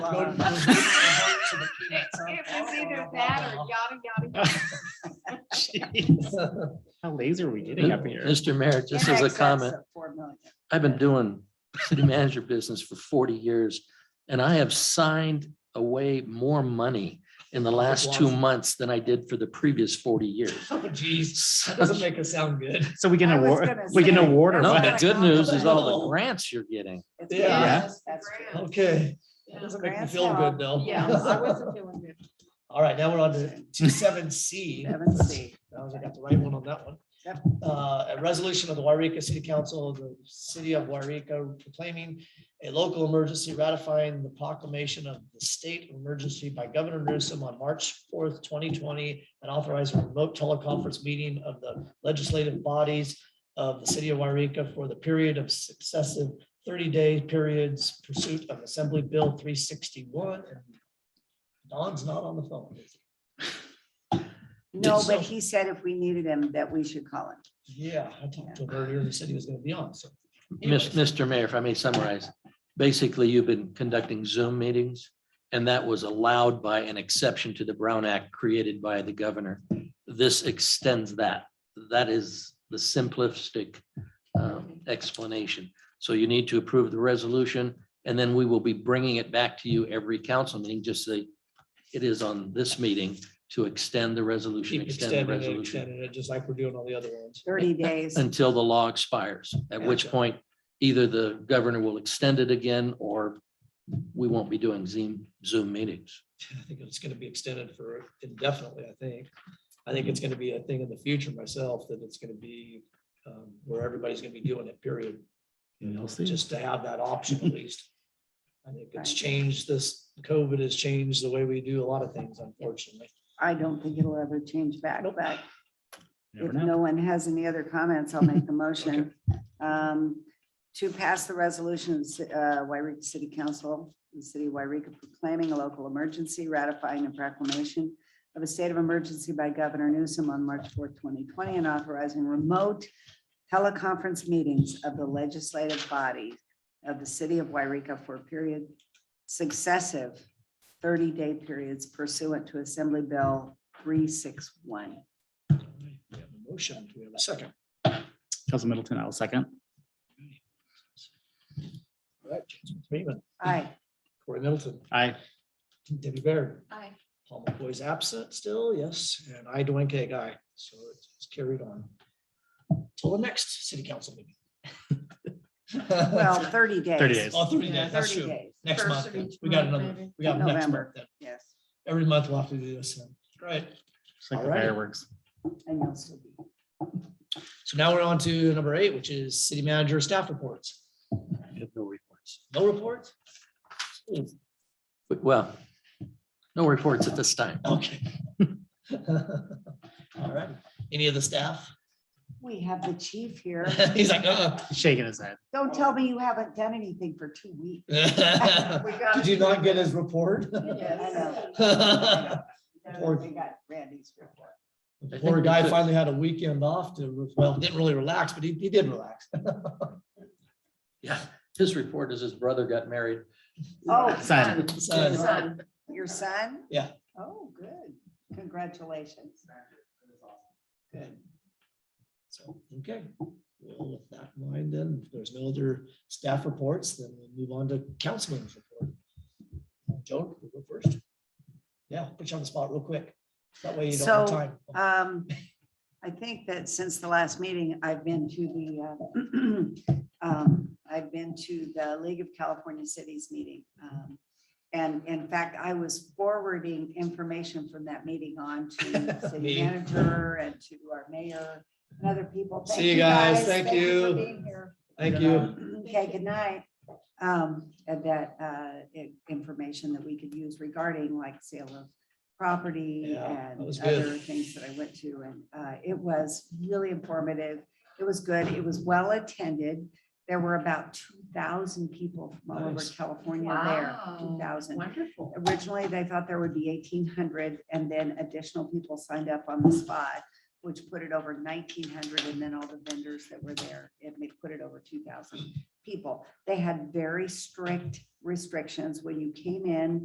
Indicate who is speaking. Speaker 1: Go
Speaker 2: Um,
Speaker 1: to- go to- to the peanuts, huh?
Speaker 2: It was either that or yada, yada, yada.
Speaker 3: Jeez. How lazy are we getting up here?
Speaker 4: Mr. Mayor, just
Speaker 2: In
Speaker 4: as a
Speaker 2: excess
Speaker 4: comment,
Speaker 2: of Four million.
Speaker 4: I've been doing city manager business for forty years and I have signed away more money in the last two months than I did for the previous forty years.
Speaker 1: Oh, geez, that
Speaker 4: So-
Speaker 1: doesn't make us sound good.
Speaker 3: So we can
Speaker 2: I was
Speaker 3: award,
Speaker 2: gonna
Speaker 3: we can
Speaker 2: say,
Speaker 3: award or
Speaker 4: No,
Speaker 3: what?
Speaker 4: the good news is all the grants you're getting.
Speaker 2: It's
Speaker 1: Yeah.
Speaker 2: grants, That's true.
Speaker 1: Okay, that doesn't make me
Speaker 2: Grants
Speaker 1: feel
Speaker 2: help.
Speaker 1: good though.
Speaker 2: Yeah, I wasn't feeling good.
Speaker 1: All right, now we're on to two seven C.
Speaker 2: Seven C.
Speaker 1: I was- I got the right one on that one.
Speaker 2: Yep.
Speaker 1: Uh, a resolution of the Wairika City Council of the City of Wairika proclaiming a local emergency ratifying the proclamation of the state emergency by Governor Newsom on March fourth, twenty twenty, and authorize a remote teleconference meeting of the legislative bodies of the city of Wairika for the period of successive thirty-day periods pursuit of Assembly Bill three sixty-one. Don's not on the phone.
Speaker 2: No,
Speaker 1: so-
Speaker 2: but he said if we needed him, that we should call him.
Speaker 1: Yeah, I talked to him earlier and he said he was gonna be on, so.
Speaker 4: Mis-
Speaker 1: anyways.
Speaker 4: Mr. Mayor, if I may summarize, basically you've been conducting Zoom meetings and that was allowed by an exception to the Brown Act created by the governor. This extends that. That is the simplistic uh, explanation. So you need to approve the resolution and then we will be bringing it back to you every council meeting, just say it is on this meeting to extend the resolution,
Speaker 1: Keep
Speaker 4: extend the
Speaker 1: extending it,
Speaker 4: resolution
Speaker 1: extending it, just like we're doing all the other ones.
Speaker 2: Thirty days.
Speaker 4: until the law expires, at which
Speaker 1: Gotcha.
Speaker 4: point either the governor will extend it again or we won't be doing Zoom, Zoom meetings.
Speaker 1: I think it's gonna be extended for indefinitely, I think. I think it's gonna be a thing in the future myself, that it's gonna be um, where everybody's gonna be doing it, period. You know, just to have that option at least. I think it's
Speaker 2: Right.
Speaker 1: changed this, COVID has changed the way we do a lot of things, unfortunately.
Speaker 2: I don't think it'll ever change back,
Speaker 1: Nope.
Speaker 2: but
Speaker 3: Never
Speaker 2: if
Speaker 3: know.
Speaker 2: no one has any other comments, I'll make the motion. um, To pass the resolution, of Ci- uh, Wairika City Council, the city of Wairika proclaiming a local emergency, ratifying a proclamation of a state of emergency by Governor Newsom on March fourth, twenty twenty, and authorizing remote teleconference meetings of the legislative body of the city of Wairika for a period successive thirty-day periods pursuant to Assembly Bill three six one.
Speaker 1: All right, We have a motion, we have a second.
Speaker 3: Council Middleton, I'll second.
Speaker 1: All right, Jason Freeman,
Speaker 2: Aye.
Speaker 1: Corey Middleton,
Speaker 3: Aye.
Speaker 1: Debbie Baird.
Speaker 2: Aye.
Speaker 1: Paul McCoy's absent still, yes, and I, Dwayne K. Guy, so it's carried on. Till the next city council meeting.
Speaker 2: Well, thirty days.
Speaker 3: 30 days.
Speaker 1: Oh, 30
Speaker 2: Yeah,
Speaker 1: days, that's
Speaker 2: 30
Speaker 1: true.
Speaker 2: days.
Speaker 1: Next
Speaker 5: First
Speaker 1: month,
Speaker 5: of
Speaker 1: then.
Speaker 5: each
Speaker 1: we got
Speaker 5: month,
Speaker 1: another,
Speaker 5: maybe.
Speaker 1: we got next month,
Speaker 2: November.
Speaker 1: then.
Speaker 2: Yes.
Speaker 1: every month we'll have to do this, then. Great.
Speaker 3: It's like the
Speaker 1: All right.
Speaker 3: fireworks.
Speaker 2: And you'll still be.
Speaker 1: So now we're on to number eight, which is city manager staff reports.
Speaker 4: I have no reports.
Speaker 1: No reports?
Speaker 4: But well, no reports at this time.
Speaker 1: Okay. All right, any of the staff?
Speaker 2: We have the chief here.
Speaker 1: He's like, uh-uh.
Speaker 3: Shaking his head.
Speaker 2: Don't tell me you haven't done anything for two weeks.
Speaker 1: Uh, Did you not get his report?
Speaker 2: I know.
Speaker 1: Or-
Speaker 2: We got Randy's report.
Speaker 1: The
Speaker 4: I
Speaker 1: Poor
Speaker 4: think
Speaker 1: guy
Speaker 4: that's it.
Speaker 1: finally had a weekend off to, re- well, didn't really relax, but he, he did relax.
Speaker 4: Yeah, his report is his brother got married.
Speaker 2: Oh,
Speaker 3: Son.
Speaker 1: Son.
Speaker 5: Son.
Speaker 2: your son?
Speaker 1: Yeah.
Speaker 2: Oh, good. Congratulations.
Speaker 1: Good. So, okay. Well, with that in mind, then, if there's no other staff reports, then we'll move on to councilman's report. Joan, you go first. Yeah, put you on the spot real quick. That way you don't have
Speaker 2: So,
Speaker 1: time.
Speaker 2: Um, I think that since the last meeting, I've been to the, uh, um, I've been to the League of California Cities meeting. Um, And in fact, I was forwarding information from that meeting on to the city
Speaker 1: Meeting.
Speaker 2: manager and to our mayor and other people. Thank
Speaker 1: See you guys. Thank
Speaker 2: for
Speaker 1: you.
Speaker 2: being here.
Speaker 1: Thank you.
Speaker 2: Okay, good night. Um, and that, uh, i- information that we could use regarding like sale of property
Speaker 1: Yeah, that
Speaker 2: and
Speaker 1: was good.
Speaker 2: other things that I went to. And, uh, it was really informative. It was good. It was well attended. There were about two thousand people from all over
Speaker 1: Nice.
Speaker 2: California there,
Speaker 5: Wow.
Speaker 2: two thousand
Speaker 5: Wonderful.
Speaker 2: originally they thought there would be eighteen hundred and then additional people signed up on the spot, which put it over nineteen hundred and then all the vendors that were there, it may put it over two thousand people. They had very strict restrictions when you came in.